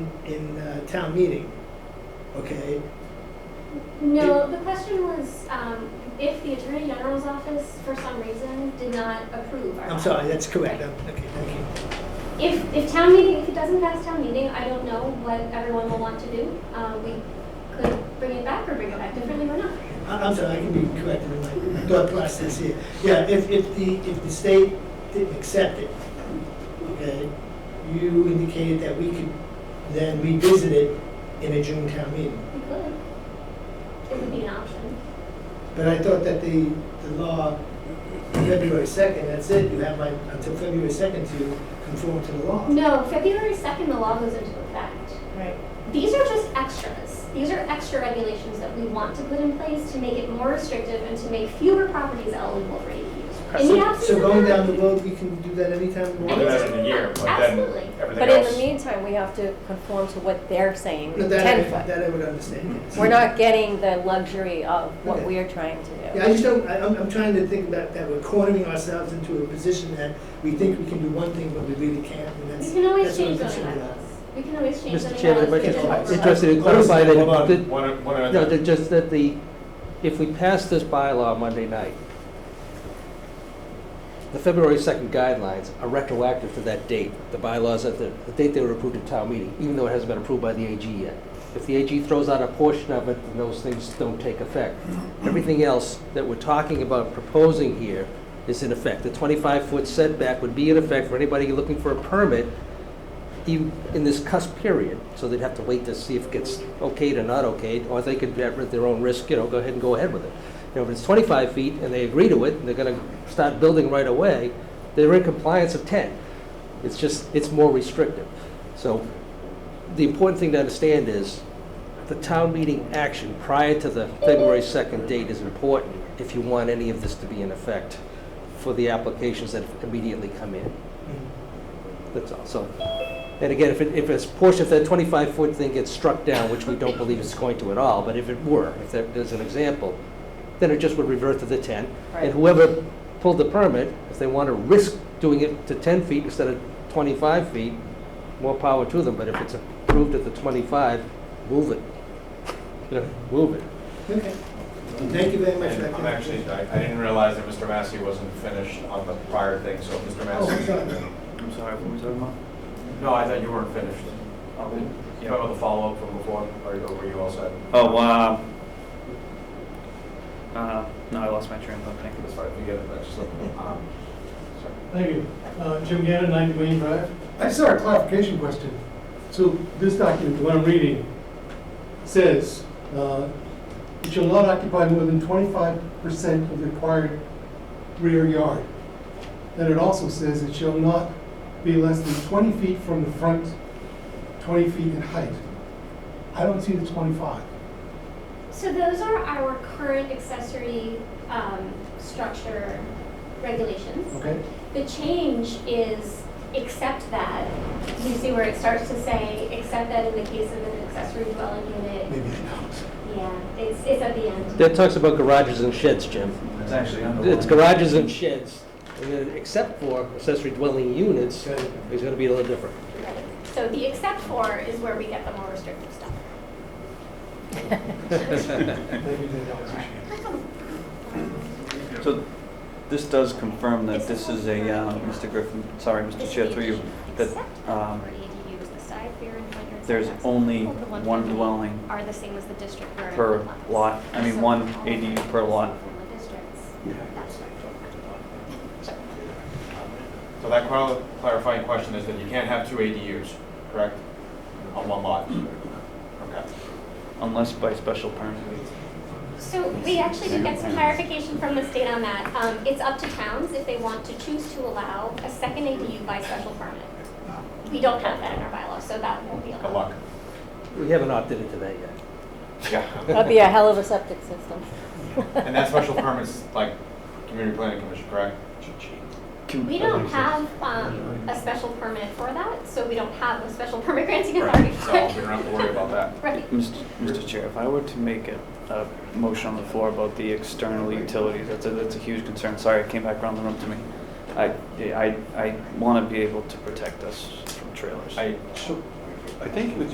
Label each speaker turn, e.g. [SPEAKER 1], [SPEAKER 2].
[SPEAKER 1] in uh, town meeting, okay?
[SPEAKER 2] No, the question was, um, if the Attorney General's office, for some reason, did not approve our.
[SPEAKER 1] I'm sorry, that's correct. I'm- Okay, thank you.
[SPEAKER 2] If, if town meeting, if it doesn't pass town meeting, I don't know what everyone will want to do. Uh, we could bring it back or bring it back differently or not.
[SPEAKER 1] I- I'm sorry, I can be corrected in my thought process here. Yeah, if, if the, if the state didn't accept it, okay, you indicated that we could then revisit it in a June town meeting.
[SPEAKER 2] We could. It would be an option.
[SPEAKER 1] But I thought that the, the law, February second, that's it, you have my, until February second to conform to the law.
[SPEAKER 2] No, February 2nd, the law goes into effect.
[SPEAKER 3] Right.
[SPEAKER 2] These are just extras. These are extra regulations that we want to put in place to make it more restrictive and to make fewer properties eligible for ADUs. In the
[SPEAKER 1] So-
[SPEAKER 2] absence
[SPEAKER 1] So
[SPEAKER 2] of
[SPEAKER 1] going
[SPEAKER 2] that-
[SPEAKER 1] down the road, we can do that anytime we
[SPEAKER 2] I
[SPEAKER 4] We'll do
[SPEAKER 1] want.
[SPEAKER 2] think
[SPEAKER 4] that
[SPEAKER 2] so.
[SPEAKER 4] in a year, but then
[SPEAKER 2] Absolutely.
[SPEAKER 4] everything
[SPEAKER 3] But in the
[SPEAKER 4] else.
[SPEAKER 3] meantime, we have to conform to what they're saying,
[SPEAKER 1] No, That, I-
[SPEAKER 3] ten foot.
[SPEAKER 1] that I would understand, yes.
[SPEAKER 3] We're not getting the luxury of what
[SPEAKER 1] Okay.
[SPEAKER 3] we are trying to
[SPEAKER 1] Yeah,
[SPEAKER 3] do.
[SPEAKER 1] I just don't, I, I'm, I'm trying to think about that we're cornering ourselves into a position that we think we can do one thing, but we really can't, and that's.
[SPEAKER 2] We can always
[SPEAKER 1] that's what I'm
[SPEAKER 2] change zoning
[SPEAKER 1] concerned
[SPEAKER 2] bylaws. We can always change zoning bylaws.
[SPEAKER 5] Mr. Chairman,
[SPEAKER 2] to
[SPEAKER 5] I might
[SPEAKER 2] get
[SPEAKER 5] just,
[SPEAKER 1] Yes.
[SPEAKER 2] more overlap.
[SPEAKER 5] I'm interested in
[SPEAKER 1] Hold on,
[SPEAKER 5] clarifying
[SPEAKER 4] Hold
[SPEAKER 5] that,
[SPEAKER 4] on,
[SPEAKER 5] that-
[SPEAKER 4] one, one
[SPEAKER 5] no,
[SPEAKER 4] other,
[SPEAKER 5] that just that the, if we pass this bylaw Monday night, the February second guidelines are retroactive to that date, the bylaws at the, the date they were approved at town meeting, even though it hasn't been approved by the AG yet. If the AG throws out a portion of it, then those things don't take effect. Everything else that we're talking about proposing here is in effect. The twenty-five foot setback would be in effect for anybody looking for a permit even in this cusp period, so they'd have to wait to see if it gets okayed or not okayed, or they could, at their own risk, you know, go ahead and go ahead with it. You know, if it's 25 feet and they agree to it, and they're going to start building right away, they're in compliance of 10. It's just, it's more restrictive. So the important thing to understand is the town meeting action prior to the February 2nd date is important if you want any of this to be in effect for the applications that immediately come in. That's all, so. And again, if it, if it's portion, if that twenty-five foot thing gets struck down, which we don't believe it's going to at all, but if it were, if that is an example, then it just would revert to the ten.
[SPEAKER 3] Right.
[SPEAKER 5] And whoever pulled the permit, if they want to risk doing it to ten feet instead of twenty-five feet, more power to them, but if it's approved at the twenty-five, move it. You know, move it.
[SPEAKER 1] Okay, thank you very much for that.
[SPEAKER 4] and I'm actually, I, I didn't realize that Mr. Massey wasn't finished on the prior thing, so Mr.
[SPEAKER 1] Oh, I'm
[SPEAKER 4] Massey.
[SPEAKER 1] sorry.
[SPEAKER 6] I'm sorry, what were we talking about?
[SPEAKER 4] No, I thought you weren't finished. You know, the follow-up from before, or were you all set?
[SPEAKER 6] Oh, wow. Uh, no, I lost my train of thought, thank you.
[SPEAKER 4] That's fine, if you get it, that's just, um, sorry.
[SPEAKER 7] Thank you. Uh, Jim Gannon, 90 Wayne Drive. I just have a clarification question. So this document, the one I'm reading, says, uh, "It shall not occupy more than 25% of the required rear yard." Then it also says, "It shall not be less than 20 feet from the front, 20 feet in height." I don't see the 25.
[SPEAKER 2] So those are our current accessory um, structure regulations.
[SPEAKER 7] Okay?
[SPEAKER 2] The change is except that, you see where it starts to say, except that in the case of an accessory dwelling unit,
[SPEAKER 7] Maybe I don't.
[SPEAKER 2] yeah, it's, it's at the end.
[SPEAKER 5] That talks about garages and sheds, Jim.
[SPEAKER 6] It's actually under.
[SPEAKER 5] It's garages and sheds, and then except for accessory dwelling units,
[SPEAKER 7] Got it.
[SPEAKER 5] is going to be a little different.
[SPEAKER 2] Right. So the except for is where we get the more restrictive stuff.
[SPEAKER 7] Maybe they don't appreciate it.
[SPEAKER 6] So this does confirm that this is a, uh, Mr. Griffin, sorry, Mr. Chair, through you, that
[SPEAKER 2] Except
[SPEAKER 6] um,
[SPEAKER 2] for ADUs, the side rear and front yard
[SPEAKER 6] there's
[SPEAKER 2] setbacks
[SPEAKER 6] only
[SPEAKER 2] over
[SPEAKER 6] one
[SPEAKER 2] feet
[SPEAKER 6] dwelling
[SPEAKER 2] Are the same as the district where.
[SPEAKER 6] per lot, I mean, one ADU per lot.
[SPEAKER 4] So that clar- clarifying question is that you can't have two ADUs, correct? On one lot? Okay.
[SPEAKER 6] unless by special permit.
[SPEAKER 2] So we actually did get some clarification from the state on that. Um, it's up to towns if they want to choose to allow a second ADU by special permit. We don't have that in our bylaw, so that won't be
[SPEAKER 4] Good
[SPEAKER 2] allowed.
[SPEAKER 4] luck.
[SPEAKER 5] We haven't opted into that yet.
[SPEAKER 4] Yeah.
[SPEAKER 3] That'd be a hell of a septic system.
[SPEAKER 4] And that special permit's like community planning commission, correct?
[SPEAKER 2] We don't have, um, a special permit for that, so we don't have a special permit granting authority.
[SPEAKER 4] So we don't have to worry about that.
[SPEAKER 2] Right.
[SPEAKER 6] Mr. Mr. uh, Chair, if I were to make a, a motion on the floor about the external utilities, that's a, that's a huge concern. Sorry, it came back around the room to me. I, I, I want to be able to protect us from trailers.
[SPEAKER 4] I,
[SPEAKER 8] I think it was